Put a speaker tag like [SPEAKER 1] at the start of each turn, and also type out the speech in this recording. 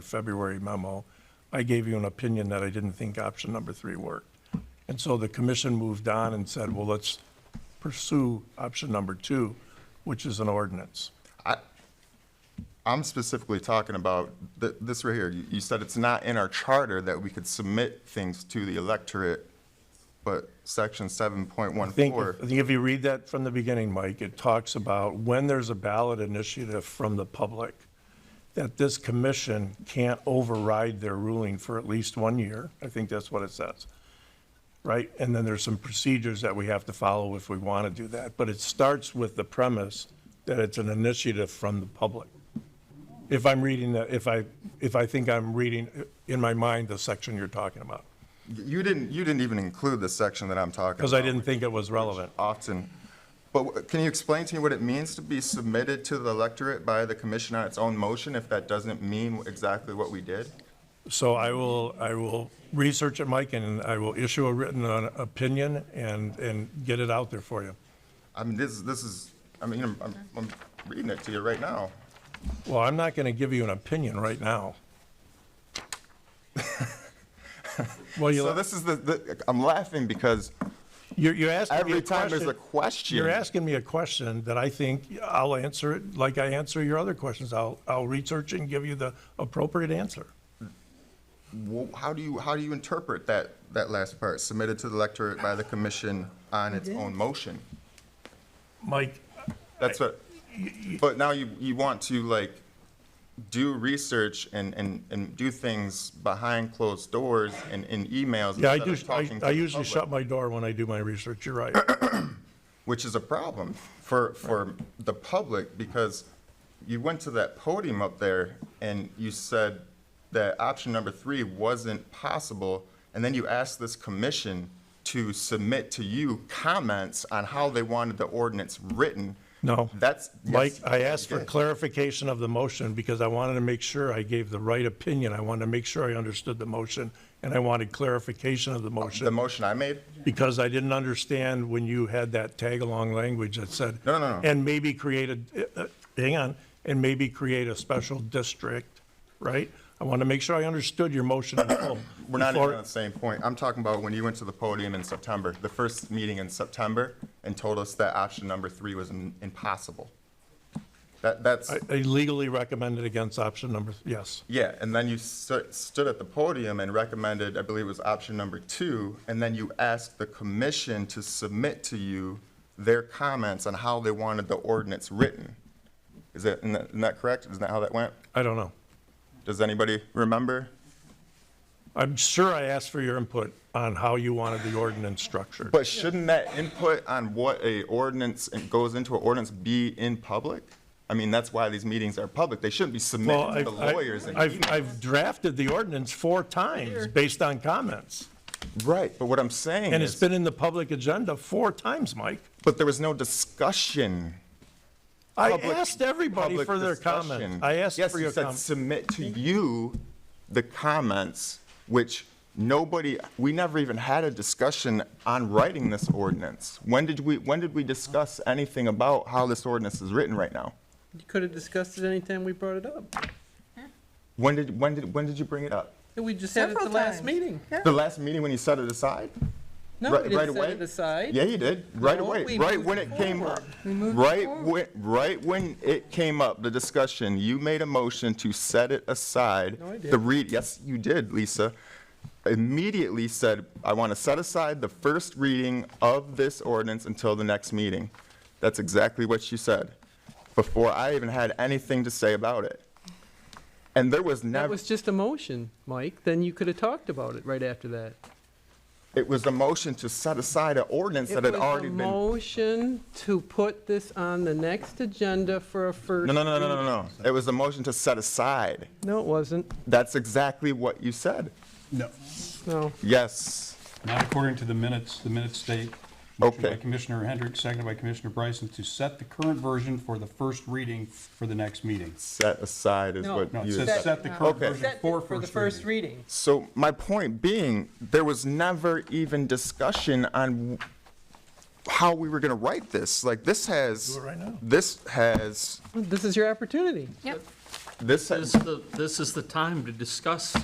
[SPEAKER 1] February memo, I gave you an opinion that I didn't think option number three worked. And so the commission moved on and said, well, let's pursue option number two, which is an ordinance.
[SPEAKER 2] I'm specifically talking about th- this right here. You you said it's not in our charter that we could submit things to the electorate, but section seven point one
[SPEAKER 1] I think,
[SPEAKER 2] four.
[SPEAKER 1] I think if you read that from the beginning, Mike, it talks about when there's a ballot initiative from the public, that this commission can't override their ruling for at least one year. I think that's what it says. Right? And then there's some procedures that we have to follow if we want to do that. But it starts with the premise that it's an initiative from the public. If I'm reading, the- if I, if I think I'm reading in my mind the section you're talking about,
[SPEAKER 2] You didn't, you didn't even include the section that I'm talking about.
[SPEAKER 1] because I didn't think it was relevant.
[SPEAKER 2] Often. But wh- can you explain to me what it means to be submitted to the electorate by the commission on its own motion if that doesn't mean exactly what we did?
[SPEAKER 1] So I will, I will research it, Mike, and I will issue a written uh, opinion and, and get it out there for you.
[SPEAKER 2] I mean, this, this is, I mean, I'm, I'm- I'm reading it to you right now.
[SPEAKER 1] Well, I'm not going to give you an opinion right now. Well,
[SPEAKER 2] So
[SPEAKER 1] you,
[SPEAKER 2] this is the- the, I'm laughing because
[SPEAKER 1] you're, you're asking me a
[SPEAKER 2] every time there's a
[SPEAKER 1] question.
[SPEAKER 2] question.
[SPEAKER 1] You're asking me a question that I think I'll answer it like I answer your other questions. I'll, I'll research and give you the appropriate answer.
[SPEAKER 2] Well, how do you, how do you interpret that, that last part, submitted to the electorate by the commission on its own motion?
[SPEAKER 1] Mike,
[SPEAKER 2] That's what, but now you, you want to like do research and, and, and do things behind closed doors and in emails.
[SPEAKER 1] yeah, I
[SPEAKER 2] instead
[SPEAKER 1] do,
[SPEAKER 2] of talking to
[SPEAKER 1] I I
[SPEAKER 2] the
[SPEAKER 1] usually
[SPEAKER 2] public,
[SPEAKER 1] shut my door when I do my research, you're right.
[SPEAKER 2] Which is a problem for, for the public because you went to that podium up there and you said that option number three wasn't possible. And then you asked this commission to submit to you comments on how they wanted the ordinance written.
[SPEAKER 1] No.
[SPEAKER 2] That's. yes,
[SPEAKER 1] Mike, I asked for
[SPEAKER 2] you did.
[SPEAKER 1] clarification of the motion because I wanted to make sure I gave the right opinion. I wanted to make sure I understood the motion, and I wanted clarification of the
[SPEAKER 2] The
[SPEAKER 1] motion
[SPEAKER 2] motion I made?
[SPEAKER 1] because I didn't understand when you had that tag-along language that said.
[SPEAKER 2] No, no, no.
[SPEAKER 1] And maybe create a, uh, uh, hang on, and maybe create a special district, right? I want to make sure I understood your motion in full.
[SPEAKER 2] We're not even
[SPEAKER 1] before-
[SPEAKER 2] on the same point. I'm talking about when you went to the podium in September, the first meeting in September, and told us that option number three was im- impossible. That, that's,
[SPEAKER 1] I I legally recommended against option number, yes.
[SPEAKER 2] yeah, and then you stu- stood at the podium and recommended, I believe it was option number two, and then you asked the commission to submit to you their comments on how they wanted the ordinance written. Is that, isn't that- isn't that correct? Isn't that how that went?
[SPEAKER 1] I don't know.
[SPEAKER 2] Does anybody remember?
[SPEAKER 1] I'm sure I asked for your input on how you wanted the ordinance structured.
[SPEAKER 2] But shouldn't that input on what a ordinance and goes into an ordinance be in public? I mean, that's why these meetings are public. They shouldn't be
[SPEAKER 1] Well,
[SPEAKER 2] submitted to
[SPEAKER 1] I've,
[SPEAKER 2] the lawyers
[SPEAKER 1] I've-
[SPEAKER 2] and
[SPEAKER 1] I've, I've drafted the ordinance four times based on comments.
[SPEAKER 2] Right, but what I'm saying
[SPEAKER 1] And it's
[SPEAKER 2] is,
[SPEAKER 1] been in the public agenda four times, Mike.
[SPEAKER 2] but there was no discussion.
[SPEAKER 1] I
[SPEAKER 2] public-
[SPEAKER 1] asked everybody
[SPEAKER 2] public
[SPEAKER 1] for their
[SPEAKER 2] discussion.
[SPEAKER 1] comments. I asked for your
[SPEAKER 2] Yes, you said
[SPEAKER 1] comments.
[SPEAKER 2] submit to you the comments, which nobody, we never even had a discussion on writing this ordinance. When did we, when did we discuss anything about how this ordinance is written right now?
[SPEAKER 3] You could have discussed it anytime we brought it up.
[SPEAKER 2] When did, when did, when did you bring it up?
[SPEAKER 3] We just had it at the
[SPEAKER 4] Several
[SPEAKER 3] last
[SPEAKER 4] times.
[SPEAKER 3] meeting.
[SPEAKER 2] The last meeting when you set it aside?
[SPEAKER 3] No,
[SPEAKER 2] Right-
[SPEAKER 3] we
[SPEAKER 2] right
[SPEAKER 3] Oh, didn't set
[SPEAKER 2] away?
[SPEAKER 3] it aside.
[SPEAKER 2] Yeah, you did, right
[SPEAKER 3] No,
[SPEAKER 2] away,
[SPEAKER 3] we
[SPEAKER 2] right
[SPEAKER 3] moved
[SPEAKER 2] when it came
[SPEAKER 3] forward.
[SPEAKER 2] up. Right when, right when it came up, the discussion, you made a motion to set it aside.
[SPEAKER 3] No, I
[SPEAKER 2] The
[SPEAKER 3] didn't.
[SPEAKER 2] read, yes, you did, Lisa. Immediately said, I want to set aside the first reading of this ordinance until the next meeting. That's exactly what you said, before I even had anything to say about it. And there was
[SPEAKER 3] That
[SPEAKER 2] never,
[SPEAKER 3] was just a motion, Mike. Then you could have talked about it right after that.
[SPEAKER 2] it was a motion to set aside an ordinance that had already
[SPEAKER 3] It
[SPEAKER 2] been
[SPEAKER 3] was a motion to put this on the next agenda for a first.
[SPEAKER 2] No, no, no, no, no, no. no. It was a motion to set aside.
[SPEAKER 3] No, it wasn't.
[SPEAKER 2] That's exactly what you said.
[SPEAKER 5] No,
[SPEAKER 3] No.
[SPEAKER 2] Yes.
[SPEAKER 5] not according to the minutes. The minutes state, motion by
[SPEAKER 2] Okay.
[SPEAKER 5] Commissioner Hendrick, seconded by Commissioner Bryson, to set the current version for the first reading for the next meeting.
[SPEAKER 2] Set aside is
[SPEAKER 3] No.
[SPEAKER 2] what
[SPEAKER 5] No, it
[SPEAKER 2] you
[SPEAKER 5] says
[SPEAKER 2] said.
[SPEAKER 5] set the current
[SPEAKER 2] Okay.
[SPEAKER 5] version for first reading.
[SPEAKER 2] So my point being, there was never even discussion on how we were going to write this. Like, this has,
[SPEAKER 1] Do it right now.
[SPEAKER 2] this has,
[SPEAKER 3] This is your opportunity.
[SPEAKER 4] Yep.
[SPEAKER 2] This,
[SPEAKER 4] This is the- this is the time to discuss